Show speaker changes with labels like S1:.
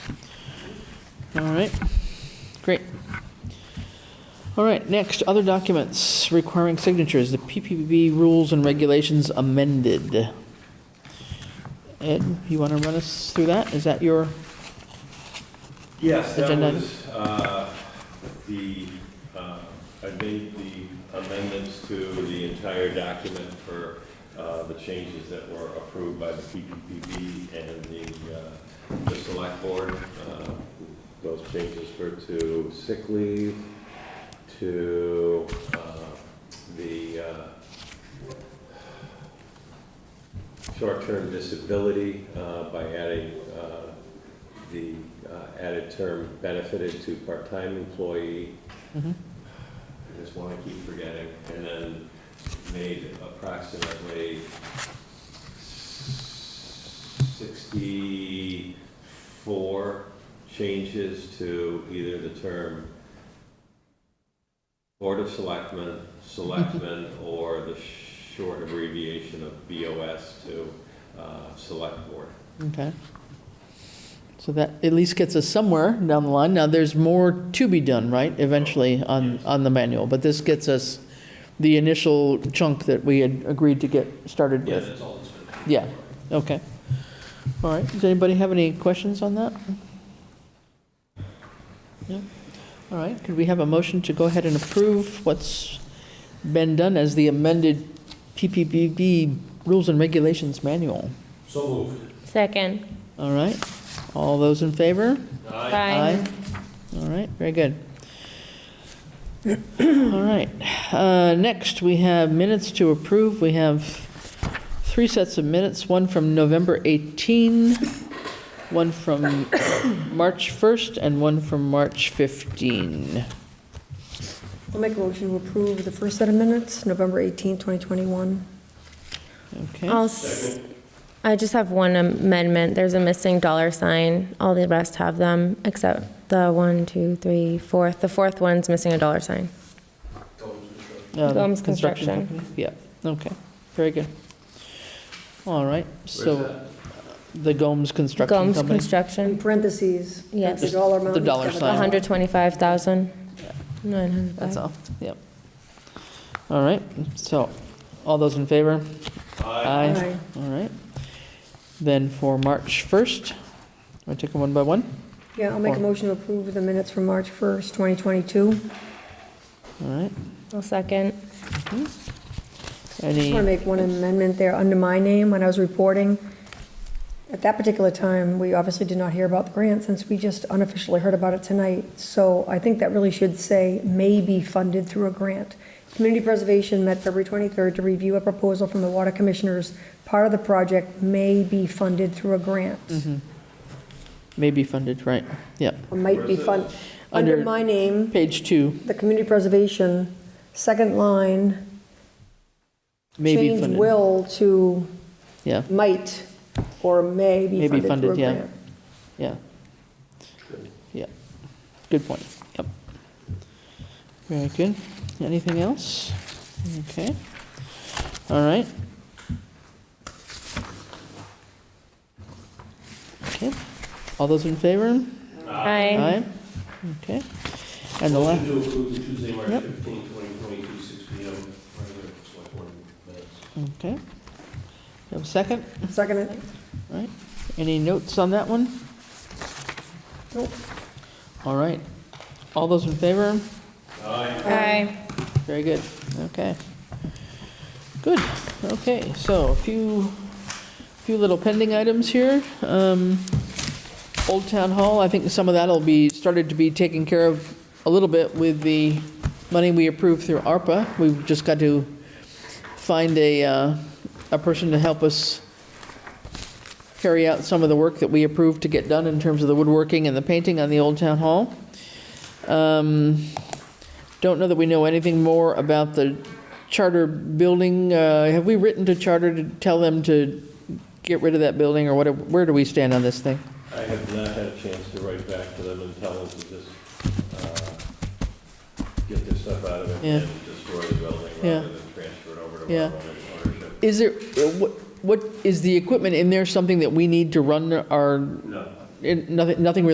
S1: All right, great. All right, next, other documents requiring signatures, the PPB rules and regulations amended. Ed, you want to run us through that? Is that your,
S2: Yes, that
S1: Agenda.
S2: was, uh, the, uh, I made the amendments to the entire document for uh, the changes that were approved by the PPPB and the, uh, the select board. Uh, Those changes were to sick leave, to uh, the uh, short-term disability uh, by adding uh, the uh, added term benefited to part-time employee.
S1: Mhm.
S2: I just want to keep forgetting, and then made approximately sixty-four changes to either the term Board of Selectmen, Selectmen, or the short abbreviation of BOS to uh, Select Board.
S1: okay. So that at least gets us somewhere down the line. Now, there's more to be done, right, eventually on, on the manual, but this gets us the initial chunk that we had agreed to get started with.
S2: that's all it's been.
S1: Yeah, okay. All right, does anybody have any questions on that? No? All right, could we have a motion to go ahead and approve what's been done as the amended PPPB Rules and Regulations Manual?
S2: So moved.
S3: Second.
S1: All right, all those in favor?
S2: uh,
S3: Aye.
S1: All right, very good. All right, uh, next, we have minutes to approve. We have three sets of minutes, one from November 18, one from March 1st, and one from March 15.
S4: I'll make a motion to approve the first set of minutes, November 18, 2021.
S1: Okay, Um,
S3: I'll, s- I just have one amendment. There's a missing dollar sign. All the rest have them, except the one, two, three, fourth. The fourth one's missing a dollar sign.
S1: um,
S3: Gomes Construction.
S1: company. Yeah, okay, very good. All right, so the Gomes Construction Company.
S3: Gomes
S4: In
S3: Construction,
S4: parentheses.
S3: Yes.
S4: The dollar amount.
S1: The dollar
S4: it's got
S1: sign.
S4: a dollar.
S3: 125,000.
S1: That's all, yep. All right, so, all those in favor? Aye.
S4: Aye.
S1: All right. Then for March 1st, I take them one by one?
S4: Yeah, I'll make a motion to approve the minutes from March 1st, 2022.
S1: All right,
S3: I'll second.
S4: Just want to
S1: any,
S4: make one amendment there under my name when I was reporting. At that particular time, we obviously did not hear about the grant since we just unofficially heard about it tonight. So I think that really should say may be funded through a grant. Community Preservation met February 23rd to review a proposal from the Water Commissioners. Part of the project may be funded through a grant,
S1: may be funded, right, yep.
S4: or might be fun, under
S1: Under-
S4: my name.
S1: Page two,
S4: the community preservation, second line,
S1: may be
S4: change
S1: funded.
S4: will to
S1: Yeah,
S4: might or may
S1: May
S4: be
S1: be
S4: funded through a
S1: funded, yeah.
S4: grant.
S1: yeah. Yeah, good point, yep. Very good. Anything else? Okay, all right. Okay, all those in favor? Aye,
S3: Aye.
S1: okay. And the last,
S5: Motion to approve the Tuesday, March
S1: Yep.
S5: 15, 2022, 6 p.m. regular select board minutes.
S1: okay. You have a second?
S4: Second, it.
S1: Any notes on that one?
S4: Nope.
S1: All right. All those in favor?
S2: Aye.
S3: Aye.
S1: Very good, okay. Good, okay, so a few, few little pending items here. Um, Old Town Hall, I think some of that'll be, started to be taken care of a little bit with the money we approved through ARPA. We've just got to find a, uh, a person to help us carry out some of the work that we approved to get done in terms of the woodworking and the painting on the Old Town Hall. Um, don't know that we know anything more about the charter building. Uh, Have we written to charter to tell them to get rid of that building, or what, where do we stand on this thing?
S2: I have not had a chance to write back to them and tell them to just, uh, get this stuff out of
S1: Yeah.
S2: it and destroy the building
S1: Yeah.
S2: rather than transfer it over to
S1: Yeah.
S2: our own ownership.
S1: Is there, uh, what, what, is the equipment in there something that we need to run our,
S2: No.
S1: in- nothing, nothing